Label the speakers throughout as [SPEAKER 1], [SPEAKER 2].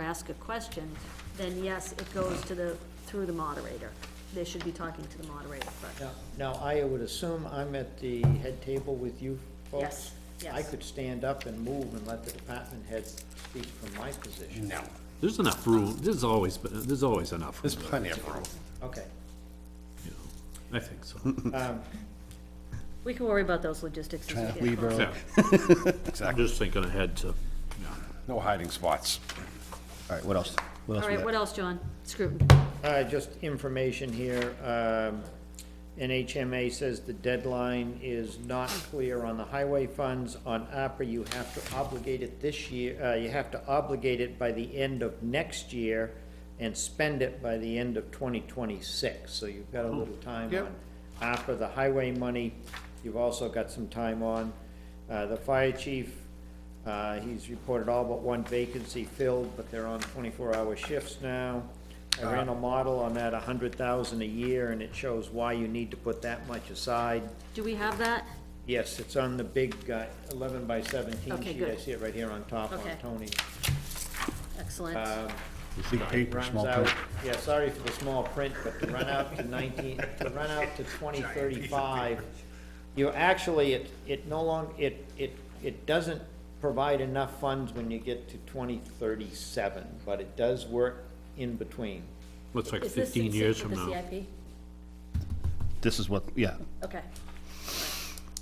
[SPEAKER 1] ask a question, then yes, it goes to the, through the moderator. They should be talking to the moderator, but,
[SPEAKER 2] Now- Now, I would assume I'm at the head table with you folks?
[SPEAKER 1] Yes,
[SPEAKER 2] I
[SPEAKER 1] yes.
[SPEAKER 2] could stand up and move and let the department head speak from my position.
[SPEAKER 3] No,
[SPEAKER 4] There's enough room, there's always, there's always enough. room,
[SPEAKER 3] there's plenty of room.
[SPEAKER 2] Okay.
[SPEAKER 4] you know. I think so.
[SPEAKER 1] we can worry about those logistics as we get
[SPEAKER 5] leave
[SPEAKER 1] closer.
[SPEAKER 5] early.
[SPEAKER 4] Yeah, I'm
[SPEAKER 3] Exactly.
[SPEAKER 4] just thinking ahead to, yeah.
[SPEAKER 3] No hiding spots.
[SPEAKER 5] All right, what else? What else
[SPEAKER 1] All
[SPEAKER 5] we
[SPEAKER 1] right,
[SPEAKER 5] got?
[SPEAKER 1] what else, John? Scruton.
[SPEAKER 2] Uh, just information here, um, NHMA says the deadline is not clear on the highway funds. On APRA, you have to obligate it this year, uh, you have to obligate it by the end of next year and spend it by the end of twenty twenty-six, so you've got a little time on APRA, the highway money, you've also got some time on. Uh, the fire chief, uh, he's reported all but one vacancy filled, but they're on twenty-four hour shifts now. I ran a model on that, a hundred thousand a year, and it shows why you need to put that much aside.
[SPEAKER 1] Do we have that?
[SPEAKER 2] Yes, it's on the big, uh, eleven by seventeen
[SPEAKER 1] Okay,
[SPEAKER 2] sheet, I
[SPEAKER 1] good.
[SPEAKER 2] see it right here on top on
[SPEAKER 1] Okay.
[SPEAKER 2] Tony.
[SPEAKER 1] Excellent.
[SPEAKER 4] Uh,
[SPEAKER 5] Big
[SPEAKER 2] It
[SPEAKER 5] paper,
[SPEAKER 2] runs
[SPEAKER 5] small
[SPEAKER 2] out,
[SPEAKER 5] print.
[SPEAKER 2] yeah, sorry for the small print, but to run out to nineteen, to run out to twenty thirty-five, you're actually, it, it no long, it, it, it doesn't provide enough funds when you get to twenty thirty-seven, but it does work in between.
[SPEAKER 4] Looks like
[SPEAKER 1] Is this
[SPEAKER 4] fifteen
[SPEAKER 1] in
[SPEAKER 4] years
[SPEAKER 1] sync
[SPEAKER 4] from
[SPEAKER 1] with the
[SPEAKER 4] now.
[SPEAKER 1] CIP?
[SPEAKER 5] This is what, yeah.
[SPEAKER 1] Okay.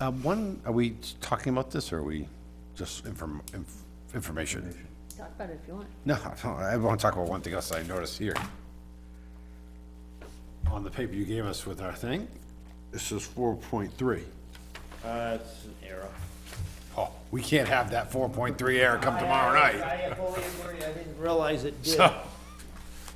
[SPEAKER 3] Uh, one, are we talking about this or are we just inform, inf- information?
[SPEAKER 1] Talk about it if you want.
[SPEAKER 3] No, I don't- I want to talk about one thing else I noticed here. On the paper you gave us with our thing, this is four point three.
[SPEAKER 2] Uh, it's an error.
[SPEAKER 3] Oh, we can't have that four point three error come tomorrow night.
[SPEAKER 2] I fully agree, I didn't realize it did.
[SPEAKER 3] So,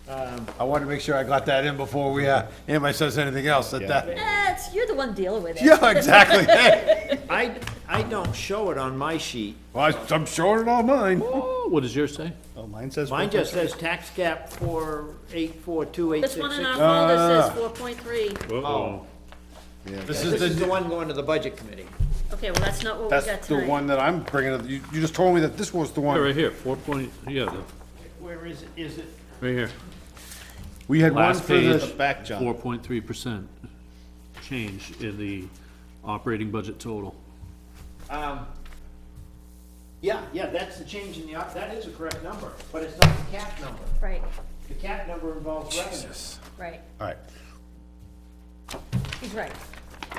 [SPEAKER 3] I wanted to make sure I got that in before we, uh, anybody says anything else that that.
[SPEAKER 1] Eh, it's- you're the one dealing with it.
[SPEAKER 3] Yeah, exactly. Hey,
[SPEAKER 2] I, I don't show it on my sheet.
[SPEAKER 3] Well, I- I'm showing it on mine.
[SPEAKER 4] Oh, what does yours say?
[SPEAKER 5] Oh, mine says.
[SPEAKER 2] Mine just says tax cap four eight four two eight
[SPEAKER 1] This
[SPEAKER 2] six
[SPEAKER 1] one in
[SPEAKER 2] six.
[SPEAKER 1] our folder says four point three.
[SPEAKER 4] Uh-oh.
[SPEAKER 3] This
[SPEAKER 2] This
[SPEAKER 3] is
[SPEAKER 2] is the
[SPEAKER 3] the,
[SPEAKER 2] one going to the budget committee.
[SPEAKER 1] Okay, well, that's not what we got
[SPEAKER 3] that's the
[SPEAKER 1] tonight.
[SPEAKER 3] one that I'm bringing, up. you, you just told me that this was the
[SPEAKER 4] Yeah,
[SPEAKER 3] one.
[SPEAKER 4] Right here, four point, yeah, the-
[SPEAKER 2] Where is it, is it?
[SPEAKER 4] right here.
[SPEAKER 3] We had one
[SPEAKER 4] Last
[SPEAKER 3] for
[SPEAKER 4] page.
[SPEAKER 3] the,
[SPEAKER 5] Back, John.
[SPEAKER 4] Four point three percent change in the operating budget total.
[SPEAKER 2] Yeah, yeah, that's the change in the, op- that is a correct number, but it's not the cap number.
[SPEAKER 1] Right,
[SPEAKER 2] The cap number involves revenue.
[SPEAKER 1] right.
[SPEAKER 3] alright,
[SPEAKER 1] He's right.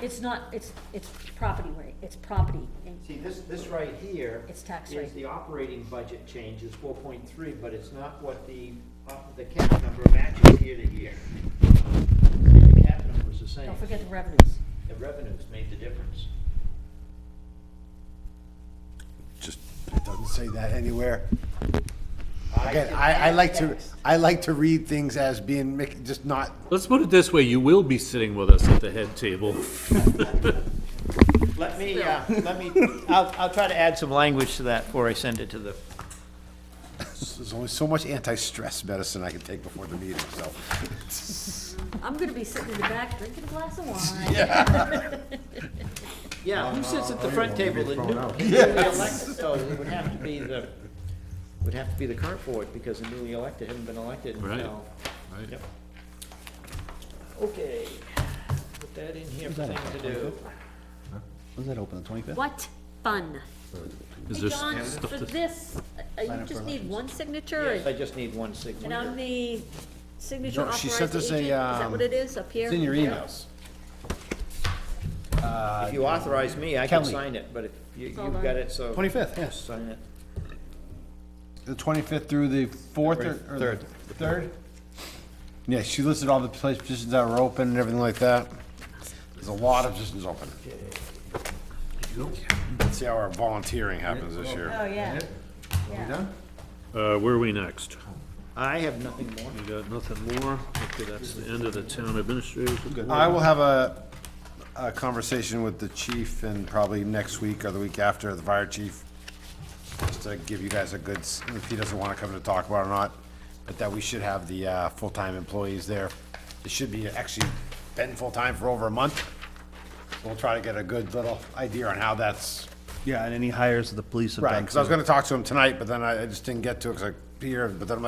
[SPEAKER 1] It's not, it's, it's property rate, it's property. in-
[SPEAKER 2] See, this, this right here
[SPEAKER 1] It's tax
[SPEAKER 2] is
[SPEAKER 1] rate.
[SPEAKER 2] the operating budget change is four point three, but it's not what the, op- the cap number matches year to year. The cap number's the same.
[SPEAKER 1] Don't forget the revenues.
[SPEAKER 2] The revenues made the difference.
[SPEAKER 3] just, it doesn't say that anywhere.
[SPEAKER 2] I
[SPEAKER 3] Again,
[SPEAKER 2] can-
[SPEAKER 3] I, I like to, I like to read things as being, mic- just not,
[SPEAKER 4] Let's put it this way, you will be sitting with us at the head table.
[SPEAKER 2] Let me, uh, let me, I'll, I'll try to add some language to that before I send it to the
[SPEAKER 3] there's only so much anti-stress medicine I can take before the meeting, so.
[SPEAKER 1] I'm gonna be sitting in the back drinking a glass of wine.
[SPEAKER 2] Yeah, who sits at the front table, the new, newly elected, so it would have to be the, would have to be the current board, because the newly elected haven't been elected
[SPEAKER 4] Right.
[SPEAKER 2] until.
[SPEAKER 4] Right.
[SPEAKER 2] Yep. Okay, put that in here for
[SPEAKER 5] that a
[SPEAKER 2] things to do.
[SPEAKER 5] Was that open the twenty-fifth?
[SPEAKER 1] What fun. Hey,
[SPEAKER 4] Is there
[SPEAKER 1] John,
[SPEAKER 4] stuff
[SPEAKER 1] for
[SPEAKER 4] to,
[SPEAKER 1] this, uh, you
[SPEAKER 5] up
[SPEAKER 1] just
[SPEAKER 5] for
[SPEAKER 1] need
[SPEAKER 5] elections.
[SPEAKER 1] one signature?
[SPEAKER 2] Yes, I
[SPEAKER 1] and-
[SPEAKER 2] just need one signature.
[SPEAKER 1] And I'm the signature
[SPEAKER 3] No, she
[SPEAKER 1] authorized
[SPEAKER 3] sent
[SPEAKER 1] agent?
[SPEAKER 3] us
[SPEAKER 1] Is
[SPEAKER 3] a,
[SPEAKER 1] that what
[SPEAKER 3] um,
[SPEAKER 1] it is, up here?
[SPEAKER 3] It's in your emails.
[SPEAKER 2] If you authorize me, I can
[SPEAKER 5] Kelly.
[SPEAKER 2] sign it, but if you, you've
[SPEAKER 1] Hold on.
[SPEAKER 2] got it, so.
[SPEAKER 5] Twenty-fifth, yes.
[SPEAKER 2] Sign it.
[SPEAKER 3] The twenty-fifth through the fourth or? or the
[SPEAKER 5] Third.
[SPEAKER 3] Third? Yeah, she listed all the place positions that were open and everything like that. There's a lot of positions open. Let's see how our volunteering happens this year.
[SPEAKER 1] Oh, yeah. Yeah.
[SPEAKER 4] uh, where are we next?
[SPEAKER 2] I have nothing more.
[SPEAKER 4] We got nothing more? Okay, that's the end of the town administration.
[SPEAKER 3] I will have a, a conversation with the chief and probably next week or the week after, the fire chief. Just to give you guys a good, s- if he doesn't wanna come to talk about it or not, but that we should have the, uh, full-time employees there. It should be actually been full-time for over a month. We'll try to get a good little idea on how that's,
[SPEAKER 5] Yeah, and any hires of the police have
[SPEAKER 3] right,
[SPEAKER 5] done.
[SPEAKER 3] cause I was
[SPEAKER 5] too.
[SPEAKER 3] gonna talk to him tonight, but then I, I just didn't get to it, cause I, Peter, but then I'm like,